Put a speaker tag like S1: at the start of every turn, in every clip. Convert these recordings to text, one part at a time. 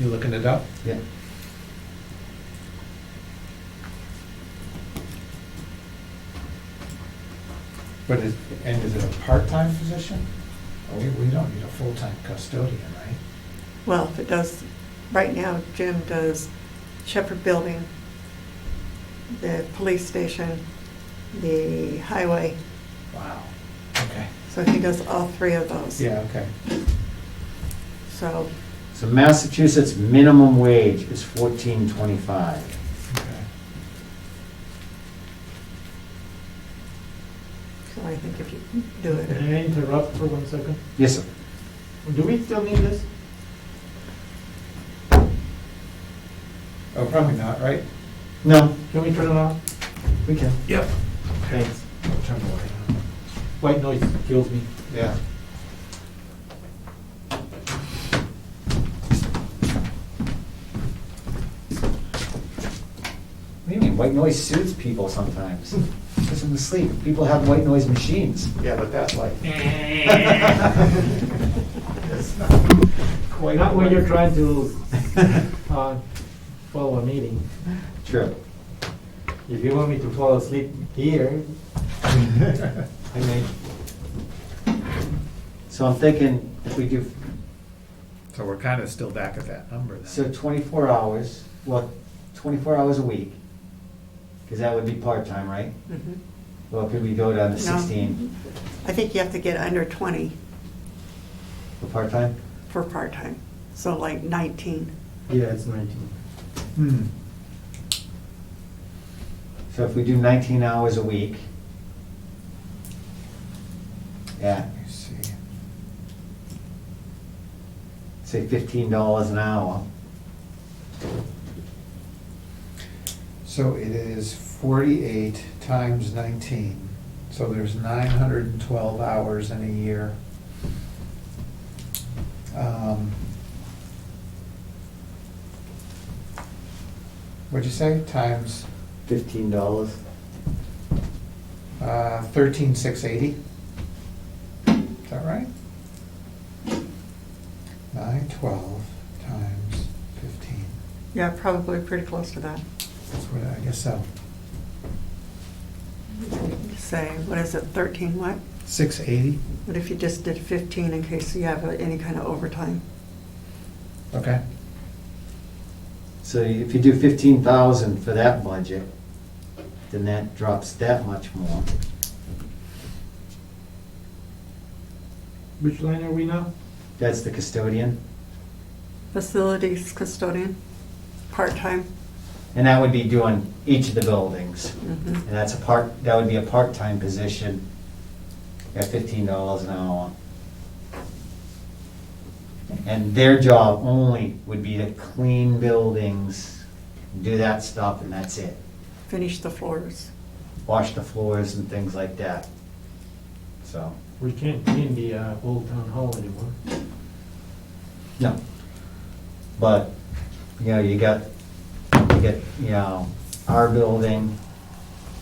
S1: You looking it up?
S2: Yeah.
S3: But is, and is it a part-time position? Oh, We, we don't need a full-time custodian, right?
S4: Well, if it does, right now Jim does Shepherd Building, the police station, the highway,
S3: Wow, okay,
S4: so he does all three of those.
S3: yeah, okay.
S4: So,
S2: So Massachusetts minimum wage is fourteen twenty-five.
S3: okay.
S4: so I think if you do
S5: Can
S4: it,
S5: I interrupt for one second?
S2: Yes, sir.
S5: Do we still need this?
S3: Oh, probably not, right?
S2: No,
S5: Can we turn it off?
S2: we can.
S1: Yep.
S5: Thanks.
S3: I'll Turn away.
S5: White noise kills me.
S3: Yeah.
S2: What do you mean, white noise soothes people sometimes? Puts them to sleep. People have white noise machines.
S3: Yeah, but that's like. It's not quite.
S5: Not when you're trying to uh, follow a meeting.
S2: True.
S5: If you want me to fall asleep here, I may.
S2: So I'm thinking if we do,
S1: So we're kind of still back at that number then.
S2: so twenty-four hours, well, twenty-four hours a week, because that would be part-time, right?
S4: mhm.
S2: Well, could we go down to Uh, sixteen
S4: I think you have to get under 20
S2: for part-time?
S4: for part-time, so like 19.
S5: Yeah, it's 19.
S3: Hmm.
S2: So if we do nineteen hours a week, yeah,
S3: Let me see.
S2: say fifteen dollars an hour.
S3: So it is forty-eight times nineteen, so there's nine hundred and twelve hours in a year. Um, What'd you say, times
S2: Fifteen dollars.
S3: Uh, thirteen six eighty? Is that right? Nine twelve times fifteen,
S4: Yeah, probably pretty close to that.
S3: that's what, I guess so,
S4: Say, what is it, 13 what?
S3: six eighty,
S4: What if you just did 15 in case you have uh, any kind of overtime?
S3: okay.
S2: So if you do fifteen thousand for that budget, then that drops that much more.
S5: Which line are we now?
S2: That's the custodian,
S4: Facilities custodian, part-time.
S2: and that would be doing each of the buildings.
S4: Mhm.
S2: And that's a part, that would be a part-time position at fifteen dollars an hour. And their job only would be to clean buildings, do that stuff, and that's it.
S4: Finish the floors.
S2: Wash the floors and things like that. So,
S5: We can't clean the uh, old town hall anymore.
S2: no. But, you know, you got, you get, you know, our building,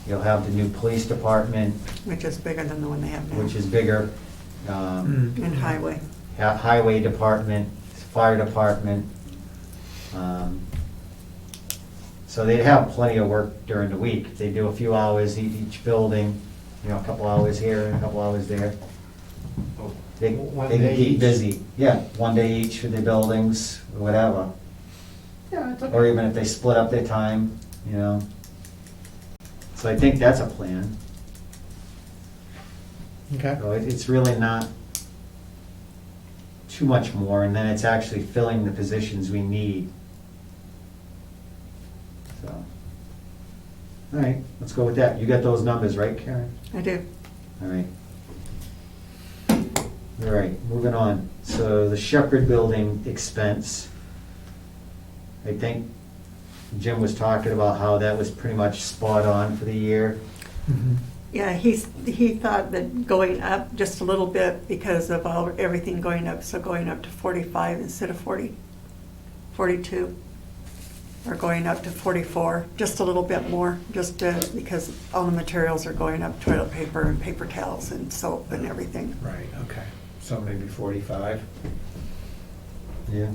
S2: you'll have the new police department,
S4: Which is bigger than the one they have now.
S2: which is bigger.
S3: Mm.
S2: Um,
S4: And highway.
S2: ha- highway department, fire department. Um, So they'd have plenty of work during the week. They do a few hours e- each building, you know, a couple hours here and a couple hours there. They
S5: Oh, One
S2: they
S5: day
S2: can keep
S5: each.
S2: busy. Yeah, one day each for their buildings, or whatever.
S3: Yeah, it's okay.
S2: Or even if they split up their time, you know. So I think that's a plan.
S3: Okay.
S2: So it- it's really not too much more, and then it's actually filling the positions we need. So, all right, let's go with that. You got those numbers, right, Karen?
S4: I do.
S2: All right. All right, moving on. So the Shepherd Building expense. I think Jim was talking about how that was pretty much spot on for the year.
S3: Mhm.
S4: Yeah, he's, he thought that going up just a little bit because of all, everything going up, so going up to 45 instead of 40, 42. Or going up to 44, just a little bit more, just to, because all the materials are going up, toilet paper and paper towels and soap and everything.
S3: Right, okay. So maybe 45?
S2: Yeah.